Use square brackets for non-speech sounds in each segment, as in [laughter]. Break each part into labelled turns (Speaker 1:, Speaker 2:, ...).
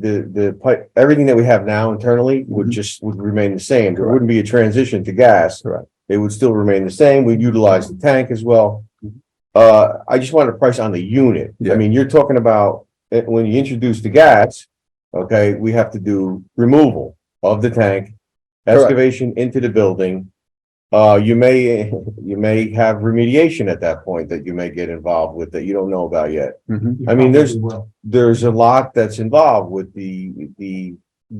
Speaker 1: the, the pipe, everything that we have now internally would
Speaker 2: Mhm.
Speaker 1: just, would remain the same. There
Speaker 2: Correct.
Speaker 1: wouldn't be a transition to gas.
Speaker 2: Correct. Mm-hmm.
Speaker 1: It would still remain the same. We'd utilize the tank as well.
Speaker 2: Mhm.
Speaker 1: Uh, I just wanted a price on the unit.
Speaker 2: Yeah.
Speaker 1: I mean, you're talking about, eh, when you introduce the gas, okay, we have to do removal of the tank,
Speaker 2: Correct.
Speaker 1: excavation into the building. Uh, you may, [laughs] you may have remediation at that point that you may get involved with that you don't know about yet.
Speaker 2: Mhm.
Speaker 1: I mean, there's- there's a lot that's involved with the, the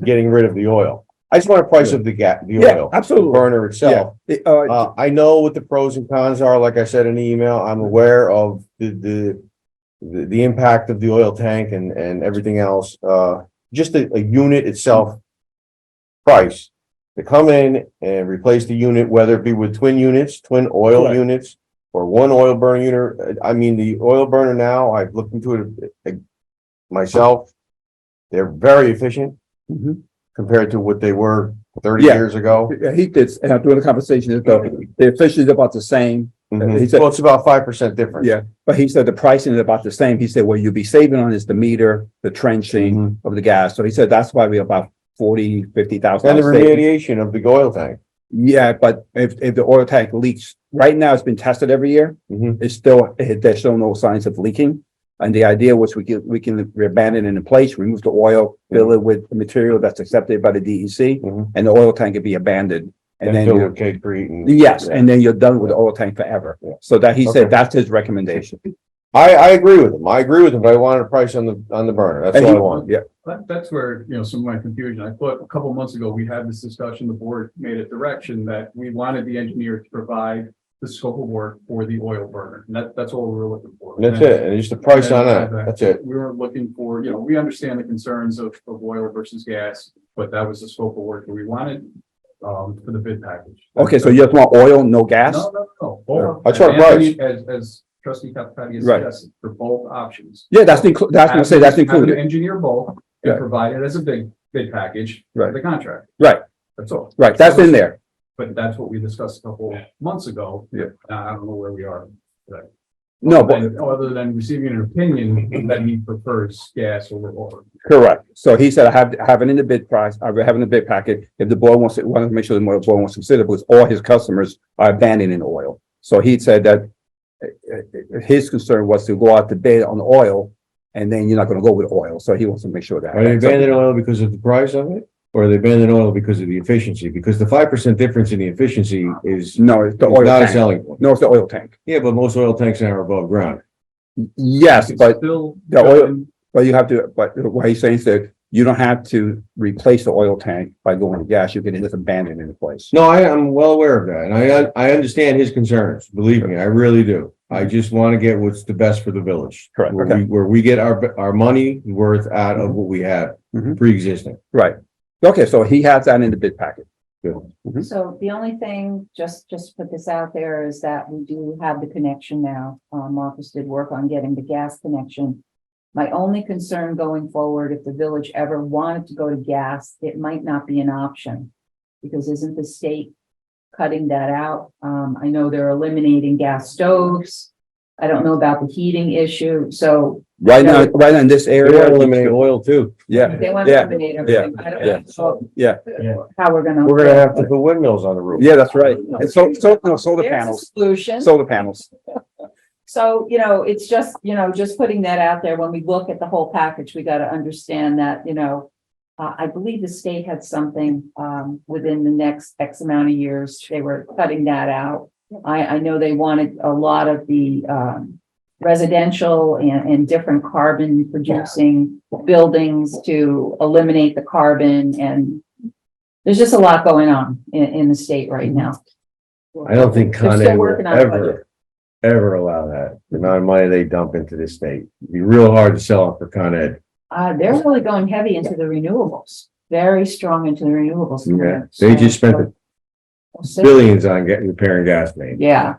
Speaker 1: getting rid of the oil. I just want to price up the ga, the
Speaker 2: Yeah,
Speaker 1: oil, the
Speaker 2: absolutely.
Speaker 1: burner itself.
Speaker 2: The, Uh,
Speaker 1: Uh, I know what the pros and cons are, like I said in the email, I'm aware of the, the, the, the impact of the oil tank and, and everything else, uh, just the, a unit itself price. To come in and replace the unit, whether it be with twin units, twin oil
Speaker 2: Correct.
Speaker 1: units, or one oil burner unit, uh, I mean, the oil burner now, I've looked into it uh, myself. They're very efficient
Speaker 2: mhm.
Speaker 1: compared to what they were thirty
Speaker 2: Yeah.
Speaker 1: years ago.
Speaker 2: Yeah, he did, uh, during the conversation, the, the official is about the same,
Speaker 1: Mhm.
Speaker 2: He said-
Speaker 1: Well, it's about five percent difference.
Speaker 2: Yeah. but he said the pricing is about the same. He said, what you'll be saving on is the meter, the trenching
Speaker 1: Mhm.
Speaker 2: of the gas. So he said, that's why we're about forty, fifty
Speaker 1: And
Speaker 2: thousand.
Speaker 1: the remediation of the oil tank.
Speaker 2: Yeah, but if, if the oil tank leaks, right now it's been tested every year.
Speaker 1: Mhm.
Speaker 2: It's still, eh, there's still no signs of leaking. And the idea was we can, we can abandon it in place, remove the oil, fill it with material that's accepted by the DEC
Speaker 1: Mhm.
Speaker 2: and the oil tank could be abandoned. And then,
Speaker 1: filled
Speaker 2: you're-
Speaker 1: with K-Crete and-
Speaker 2: yes, and then you're done with the oil tank forever.
Speaker 1: Yeah.
Speaker 2: So that he
Speaker 1: Okay.
Speaker 2: said, that's his recommendation.
Speaker 1: I, I agree with him. I agree with him, but I wanted a price on the, on the burner. That's
Speaker 2: And
Speaker 1: all I
Speaker 2: he-
Speaker 1: want.
Speaker 2: Yeah,
Speaker 3: That, that's where, you know, some of my confusion, I thought a couple months ago, we had this discussion, the board made a direction that we wanted the engineer to provide the scope of work for the oil burner, and that, that's all we were looking for.
Speaker 1: And that's it. And just the price on that. That's it.
Speaker 3: We were looking for, you know, we understand the concerns of, of oil versus gas, but that was the scope of work that we wanted, um, for the bid package.
Speaker 2: okay, so you just want oil, no gas?
Speaker 3: No, no, no. both.
Speaker 1: That's our
Speaker 3: As Anthony- As, as trustee Capitani has
Speaker 2: Right.
Speaker 3: suggested, for both options.
Speaker 2: Yeah, that's included, that's what I say, that's
Speaker 3: Have- have
Speaker 2: included.
Speaker 3: an Engineer bulk
Speaker 2: Yeah.
Speaker 3: and provide it as a big, big package. for
Speaker 2: Right.
Speaker 3: The contract.
Speaker 2: Right.
Speaker 3: That's all.
Speaker 2: Right, that's in there.
Speaker 3: But that's what we discussed a couple months ago.
Speaker 2: Yeah.
Speaker 3: Uh, I don't know where we are.
Speaker 2: No, but,
Speaker 3: And Other than receiving an opinion that he prefers gas over oil.
Speaker 2: correct. So he said, I have, I have it in the bid price, I have it in the bid packet. If the board wants, to wanted to make sure the board wants to consider, because all his customers are abandoning oil. So he said that eh, eh, eh, his concern was to go out to bid on oil, and then you're not gonna go with oil, so he wants to make sure that.
Speaker 1: Are they abandoning oil because of the price of it? Or are they abandoning oil because of the efficiency? Because the five percent difference in the efficiency is is
Speaker 2: No, it's the oil
Speaker 1: not a
Speaker 2: tank.
Speaker 1: selling point.
Speaker 2: No, it's the oil tank.
Speaker 1: Yeah, but most oil tanks now are above ground.
Speaker 2: Yes,
Speaker 3: It's
Speaker 2: but,
Speaker 3: Still.
Speaker 2: the oil- but you have to, but what he's saying is that you don't have to replace the oil tank by going to gas, you can just abandon it in place.
Speaker 1: No, I am well aware of that. And I, I understand his concerns. Believe me, I really do. I just want to get what's the best for the village.
Speaker 2: Correct,
Speaker 1: Where
Speaker 2: okay.
Speaker 1: we, where we get our, our money worth out of what we have
Speaker 2: Mhm.
Speaker 1: pre-existing.
Speaker 2: Right. Okay, so he has that in the bid packet. Hmm. Mm-hmm.
Speaker 4: So the only thing, just, just to put this out there, is that we do have the connection now. Uh, Marcus did work on getting the gas connection. My only concern going forward, if the village ever wanted to go to gas, it might not be an option. Because isn't the state cutting that out? Um, I know they're eliminating gas stoves. I don't know about the heating issue, so
Speaker 2: Right now,
Speaker 4: Yeah.
Speaker 2: right now in this
Speaker 1: They're
Speaker 2: area,
Speaker 1: eliminating oil too.
Speaker 2: yeah,
Speaker 4: they want
Speaker 2: Yeah,
Speaker 4: to eliminate everything. I
Speaker 2: yeah,
Speaker 4: don't know
Speaker 2: yeah.
Speaker 4: how we're gonna.
Speaker 1: We're gonna have to put windmills on the roof.
Speaker 2: yeah, that's right. And so, so, no, solar
Speaker 4: There's a
Speaker 2: panels,
Speaker 4: Solution.
Speaker 2: solar panels.
Speaker 4: So, you know, it's just, you know, just putting that out there, when we look at the whole package, we gotta understand that, you know. Uh, I believe the state had something, um, within the next X amount of years, they were cutting that out. I, I know they wanted a lot of the, um, residential and, and different carbon producing buildings to eliminate the carbon and. There's just a lot going on in, in the state right now.
Speaker 1: I don't think
Speaker 4: They're
Speaker 1: Con
Speaker 4: still
Speaker 1: Ed will
Speaker 4: working on a budget.
Speaker 1: ever, ever allow that. The amount of money they dump into this state. It'd be real hard to sell it for Con Ed.
Speaker 4: Uh, they're really going heavy into the renewables, very strong into the renewables.
Speaker 1: Yeah, they just spent the billions on getting repairing gas main.
Speaker 4: Yeah,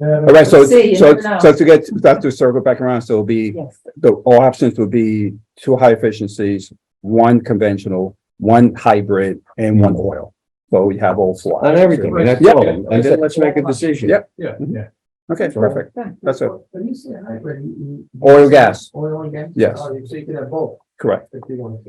Speaker 2: All right, so,
Speaker 4: See, you
Speaker 2: so,
Speaker 4: never know.
Speaker 2: so to get, that's to circle back around, so it'll be,
Speaker 4: yes.
Speaker 2: the, all options would be two high efficiencies, one conventional, one hybrid, and one oil. So we have all four.
Speaker 1: On everything, and that's
Speaker 2: Yeah.
Speaker 1: all. And then let's make a decision.
Speaker 2: Yeah.
Speaker 3: Yeah, yeah.
Speaker 2: Okay, perfect.
Speaker 4: Good.
Speaker 2: That's it.
Speaker 5: When you say hybrid, you- you-
Speaker 2: Oil, gas.
Speaker 5: Oil and gas?
Speaker 2: Yes.
Speaker 5: Oh, you say you could have both.
Speaker 6: Correct.
Speaker 3: if you want to.